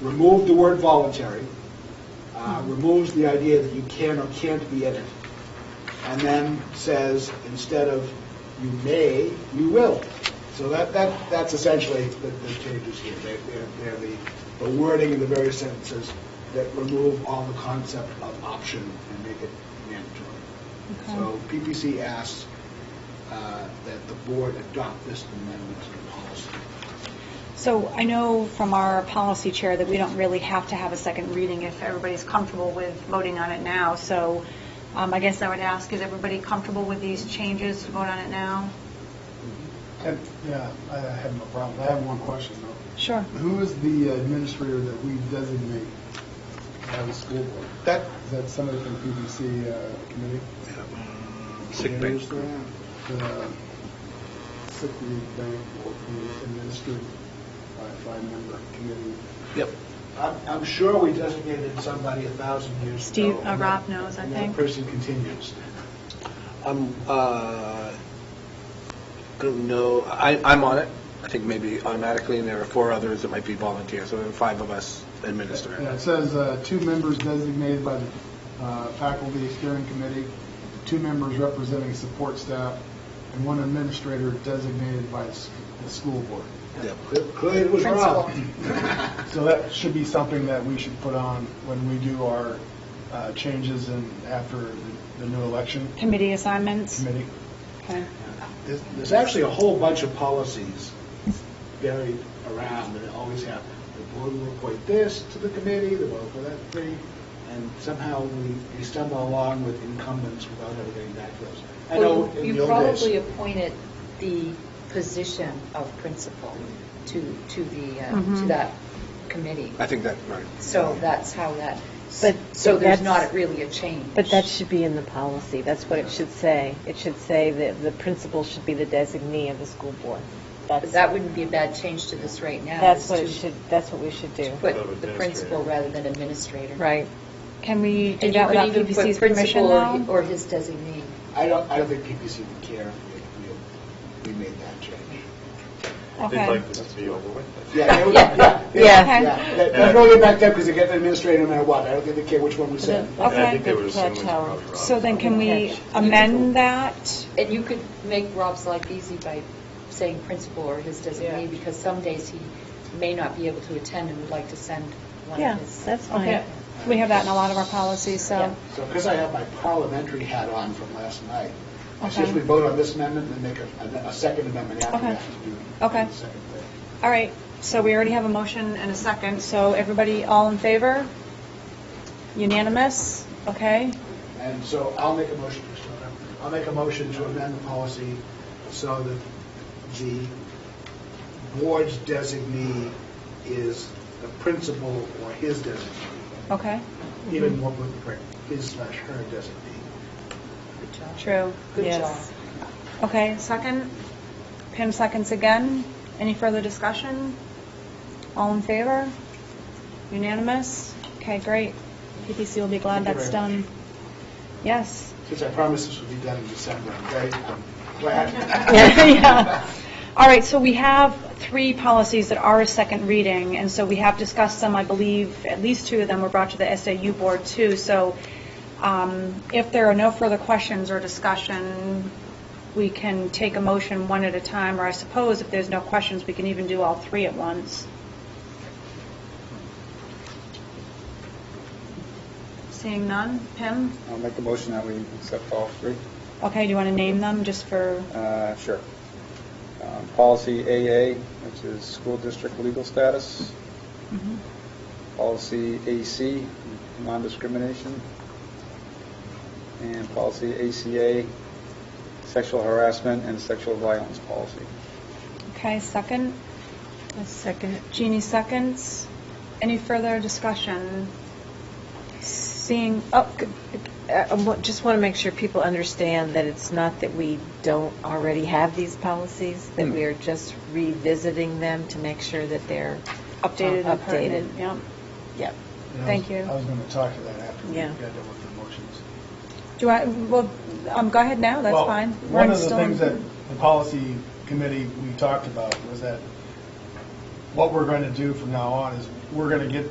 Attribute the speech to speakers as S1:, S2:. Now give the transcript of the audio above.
S1: remove the word voluntary, uh, removes the idea that you can or can't be in it, and then says, instead of you may, you will. So that, that, that's essentially the, the changes here. They- They're, they're the, the wording in the various sentences that remove all the concept of option and make it mandatory.
S2: Okay.
S1: So PPC asks uh, that the board adopt this amendment to the policy.
S2: So I know from our policy chair that we don't really have to have a second reading if everybody's comfortable with voting on it now. So um, I guess I would ask, is everybody comfortable with these changes, to vote on it now?
S3: And, Yeah, I I have no problem. I have one question, though.
S2: Sure.
S3: Who is the administrator that we designate by the school board?
S1: That,
S3: Is that somebody from PBC uh, committee?
S4: Sick bank.
S3: The uh, sick leave bank will be administered by a five-member committee.
S4: Yep.
S1: I'm, I'm sure we designated somebody a thousand years ago.
S2: Steve, uh,
S1: and
S2: Rob
S1: that-
S2: knows, I
S1: and
S2: think.
S1: that person continues.
S4: I'm, uh, don't know, I, I'm on it. I think maybe automatically, and there are four others that might be volunteers, so there are five of us administer
S3: Yeah, it
S4: it.
S3: says uh, two members designated by the uh, faculty steering committee, two members representing support staff, and one administrator designated by the s- the school board.
S4: Yep.
S1: Clearly, it was Rob.
S3: So that should be something that we should put on when we do our uh, changes and after the- the new election
S2: Committee assignments?
S3: committee.
S2: Okay.
S1: There's there's actually a whole bunch of policies buried around that always happen. The board will appoint this to the committee, the board will appoint that committee, and somehow we we stumble along with incumbents without ever getting back to those. I know
S5: Well,
S1: in the
S5: You
S1: old days.
S5: probably appointed the position of principal to, to the, uh, to
S6: Mm-hmm.
S2: Mhm.
S5: that committee.
S4: I think that, right.
S5: So that's how that,
S6: But
S5: so there's
S6: that's-
S5: not really a change.
S6: But that should be in the policy, that's what it should say. It should say that the principal should be the designee of the school board.
S5: But
S6: That's,
S5: That wouldn't be a bad change to this right now.
S6: that's
S5: is
S6: what it
S5: to-
S6: should, that's what we should do,
S5: To put the principal rather than administrator.
S6: right?
S2: Can we do
S5: And you
S2: that
S5: could
S2: without
S5: even put
S2: PPC's permission
S5: principal or-
S2: now?
S5: Or his designee.
S1: I don't, I don't think PPC would care if we- we made that change.
S2: Okay.
S7: this to be over with.
S1: Yeah, they would-
S5: Yeah.
S1: yeah, yeah,
S2: Yeah.
S1: yeah. They- They're going back there because they get administrated no matter what. I don't think they care which one we send.
S7: And I
S2: Okay.
S7: think they were assuming it's
S6: Catch Howard.
S7: probably Rob.
S2: So then can we
S6: Catch.
S2: amend that?
S5: And you could make Rob's life easy by saying principal or his designee, because some days he may not be able to attend and would like to send one
S6: Yeah,
S5: of his.
S6: that's
S2: Okay.
S6: fine.
S2: We have that in a lot of our policies, so.
S1: So because I have my parliamentary hat on from last night, I
S2: Okay.
S1: suggest we vote on this amendment and make a, a second amendment after
S2: Okay.
S1: that. to do the
S2: Okay.
S1: second thing.
S2: All right, so we already have a motion and a second, so everybody, all in favor? Unanimous? Okay,
S1: And so I'll make a motion, I'll make a motion to amend the policy so that the board's designee is the principal or his designee,
S2: okay, Mm-hmm.
S1: even more with his slash her designee.
S5: Good job.
S2: true.
S5: Good job.
S6: Yes.
S2: Okay, second, Pam seconds again. Any further discussion? All in favor? Unanimous? Okay, great. PPC will be glad
S1: Thank you
S2: that's
S1: very
S2: done. Yes.
S1: Because I promised this would be done in December, I'm very I'm glad.
S2: Yeah. All right, so we have three policies that are a second reading, and so we have discussed them, I believe, at least two of them were brought to the SAU board too. So um, if there are no further questions or discussion, we can take a motion one at a time, or I suppose if there's no questions, we can even do all three at once. Seeing none, Pim?
S8: I'll make a motion that we accept all three.
S2: Okay, do you want to name them just for,
S8: Uh, Sure. Um, Policy AA, which is school district legal status.
S2: Mhm.
S8: Policy AC, non-discrimination. And policy ACA, sexual harassment and sexual violence policy.
S2: okay, second?
S6: Second.
S2: Jeannie seconds. Any further discussion? Seeing, oh,
S6: Good. Uh, I wa- just want to make sure people understand that it's not that we don't already have these policies, that
S7: Hmm.
S6: we are just revisiting them to make sure that they're uh,
S2: updated and
S6: Updated.
S2: pertinent, yeah.
S3: And
S6: Yep.
S3: I was-
S2: Thank you.
S3: I was going to talk to that after we
S6: Yeah.
S3: got done with the motions.
S2: Do I, well, um, go ahead now, that's
S3: Well,
S2: fine. We're
S3: One of the
S2: still in-
S3: things that the policy committee we talked about was that what we're going to do from now on is we're going to get